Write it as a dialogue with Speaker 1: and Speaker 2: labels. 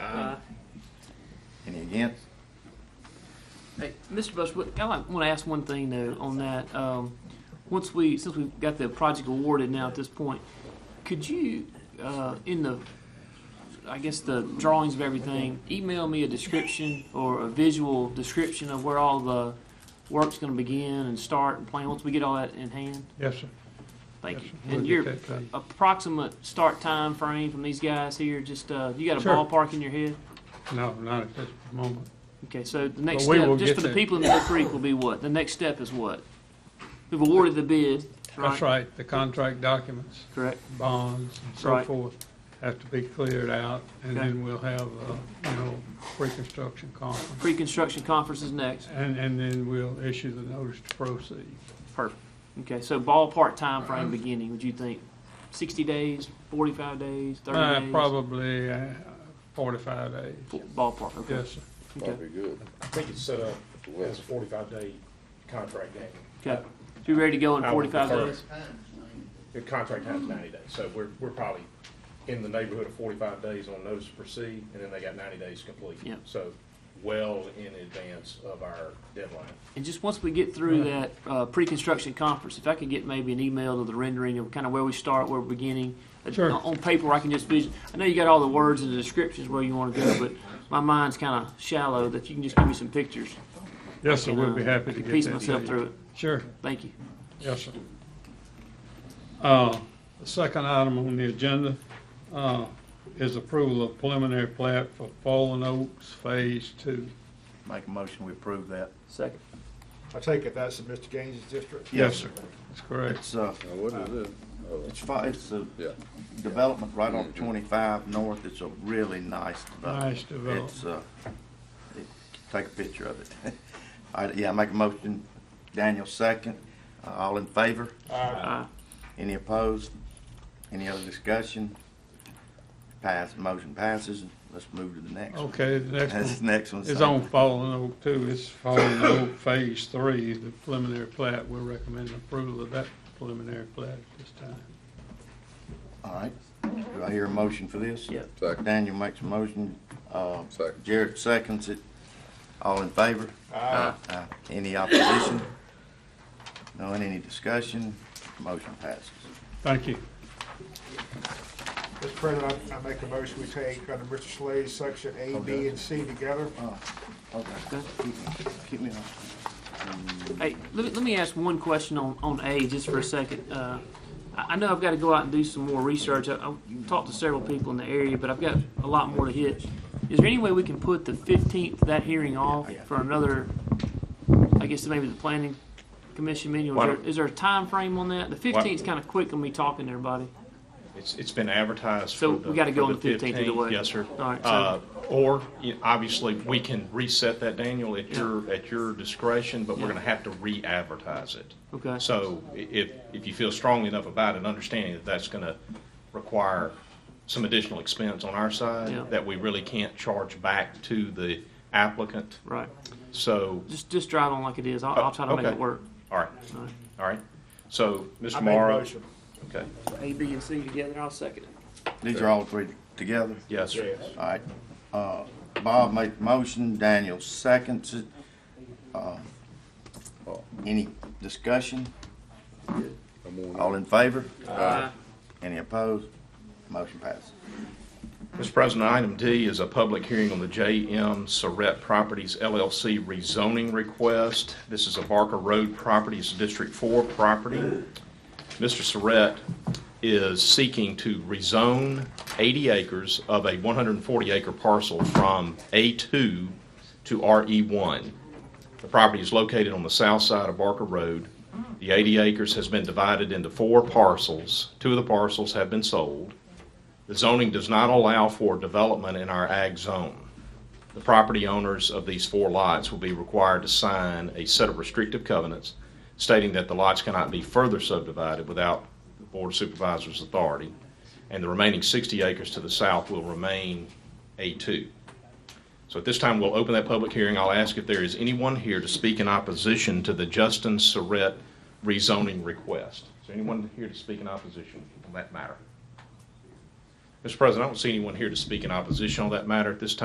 Speaker 1: Against?
Speaker 2: Hey, Mr. Bush, what- I like, want to ask one thing though on that. Um, once we, since we've got the project awarded now at this point, could you, uh, in the, I guess the drawings of everything, email me a description or a visual description of where all the work's going to begin and start and plan once we get all that in hand?
Speaker 3: Yes, sir.
Speaker 2: Thank
Speaker 3: Yes,
Speaker 2: you.
Speaker 3: sir. We'll
Speaker 2: And
Speaker 3: get
Speaker 2: your
Speaker 3: that to you.
Speaker 2: approximate start time frame from these guys here, just uh, you got a
Speaker 3: Sure.
Speaker 2: ballpark in your head?
Speaker 3: No, not at this moment.
Speaker 2: Okay, so the next
Speaker 3: But we
Speaker 2: step,
Speaker 3: will get
Speaker 2: just for the
Speaker 3: there.
Speaker 2: people in Mill Creek, will be what? The next step is what? We've awarded the bid, right?
Speaker 3: That's right, the contract documents,
Speaker 2: Correct.
Speaker 3: bonds, and so
Speaker 2: Right.
Speaker 3: forth have to be cleared out, and
Speaker 2: Okay.
Speaker 3: then we'll have, uh, you know, reconstruction conference.
Speaker 2: Pre-construction conference is next.
Speaker 3: And, and then we'll issue the notice to proceed.
Speaker 2: Perfect. Okay, so ballpark time frame beginning, would you think? Sixty days, forty-five days,
Speaker 3: Uh,
Speaker 2: thirty days?
Speaker 3: Probably uh, forty-five days.
Speaker 2: Ballpark, okay.
Speaker 3: Yes, sir.
Speaker 2: Okay,
Speaker 1: Probably good.
Speaker 4: I think it's set up as a forty-five day contract game.
Speaker 2: okay. So you ready to go in
Speaker 4: I would
Speaker 2: forty-five
Speaker 4: prefer-
Speaker 2: days?
Speaker 4: The contract time's ninety days, so we're, we're probably in the neighborhood of forty-five days on notice to proceed, and then they got ninety days to complete.
Speaker 2: Yeah.
Speaker 4: So well in advance of our deadline.
Speaker 2: And just once we get through that uh, pre-construction conference, if I could get maybe an email to the rendering of kind of where we start, where we're beginning. Uh,
Speaker 3: Sure.
Speaker 2: On paper, I can just vision, I know you got all the words and the descriptions where you want to go, but my mind's kind of shallow, that you can just give me some pictures.
Speaker 3: Yes, sir,
Speaker 2: and,
Speaker 3: we'll
Speaker 2: uh,
Speaker 3: be happy to
Speaker 2: I
Speaker 3: get
Speaker 2: can
Speaker 3: that.
Speaker 2: piece
Speaker 3: to
Speaker 2: myself
Speaker 3: you.
Speaker 2: through it.
Speaker 3: Sure,
Speaker 2: Thank you.
Speaker 3: yes, sir. Uh, The second item on the agenda uh, is approval of preliminary plat for Fallen Oaks Phase Two.
Speaker 1: Make a motion, we approve that.
Speaker 2: Second.
Speaker 5: I take it that's in Mr. Gaines' district?
Speaker 1: Yes, sir.
Speaker 3: That's correct.
Speaker 1: It's, uh,
Speaker 6: Now, what is it? Oh,
Speaker 1: it's fi, it's a
Speaker 6: Yeah.
Speaker 1: development right on twenty-five north. It's a really nice development.
Speaker 3: Nice development.
Speaker 1: It's, uh, it- take a picture of it. I, yeah, make a motion, Daniel second. Uh, All in favor?
Speaker 2: Aye.
Speaker 1: Any opposed? Any other discussion? Pass, motion passes. Let's move to the next one.
Speaker 3: Okay, the next one.
Speaker 1: This next one's.
Speaker 3: Oh, It's on Fallen Oak too, it's Fallen Oak Phase Three, the preliminary plat, we're recommending approval of that preliminary plat at this time.
Speaker 1: All right. Do I hear a motion for this?
Speaker 2: Yep.
Speaker 6: Second.
Speaker 1: Daniel makes a motion. uh,
Speaker 6: Second.
Speaker 1: Jared seconds it. All in favor? Aye. Any opposition? No, and any discussion? Motion passes.
Speaker 3: Thank you.
Speaker 5: Mr. President, I, I make a motion, we take under Mr. Slay's section A, B, and C together.
Speaker 1: Okay. Keep me on.
Speaker 2: Hey, let me, let me ask one question on, on A just for a second. Uh, I, I know I've got to go out and do some more research. I, I've talked to several people in the area, but I've got a lot more to hit. Is there any way we can put the fifteenth, that hearing off
Speaker 1: Yeah, yeah.
Speaker 2: for another, I guess maybe the planning commission meeting? Is
Speaker 4: Why
Speaker 2: there,
Speaker 4: don't-
Speaker 2: is there a time frame on that? The fifteenth's kind of quick on me talking to everybody.
Speaker 4: It's, it's been advertised
Speaker 2: So
Speaker 4: for the.
Speaker 2: we gotta go
Speaker 4: for
Speaker 2: on the 15th either way.
Speaker 4: Yes, sir.
Speaker 2: All right, so-
Speaker 4: Uh, Or, you know, obviously, we can reset that, Daniel, at
Speaker 2: Yeah.
Speaker 4: your, at your discretion, but we're
Speaker 2: Yeah.
Speaker 4: gonna have to re-advertise it.
Speaker 2: Okay.
Speaker 4: So i- if, if you feel strongly enough about it, understanding that that's gonna require some additional expense on our
Speaker 2: Yeah.
Speaker 4: side, that we really can't charge back to the applicant,
Speaker 2: Right.
Speaker 4: so.
Speaker 2: Just, just drive on like it is. I'll, I'll try to make
Speaker 4: Okay.
Speaker 2: it work.
Speaker 4: All right,
Speaker 2: All right.
Speaker 4: all right. So,
Speaker 5: I
Speaker 4: Mr.
Speaker 5: make a
Speaker 4: Morrow.
Speaker 5: motion.
Speaker 4: Okay,
Speaker 2: A, B, and C together. I'll second it.
Speaker 1: These are all three together?
Speaker 4: yes, sir.
Speaker 1: All right. Uh, Bob made the motion, Daniel seconds it. Uh, Any discussion?
Speaker 6: I'm on
Speaker 1: All in favor?
Speaker 2: Aye.
Speaker 1: Any opposed? Motion passes.
Speaker 4: Mr. President, item D is a public hearing on the JM Saret Properties LLC rezoning request. This is a Barker Road Properties District 4 property. Mr. Saret is seeking to rezone 80 acres of a 140-acre parcel from A2 to RE1. The property is located on the south side of Barker Road. The 80 acres has been divided into four parcels. Two of the parcels have been sold. The zoning does not allow for development in our ag zone. The property owners of these four lots will be required to sign a set of restrictive covenants stating that the lots cannot be further subdivided without the Board of Supervisors' authority, and the remaining 60 acres to the south will remain A2. So at this time, we'll open that public hearing. I'll ask if there is anyone here to speak in opposition to the Justin Surratt rezoning request. Is there anyone here to speak in opposition on that matter? Mr. President, I don't see anyone here to speak in opposition on that matter at this time.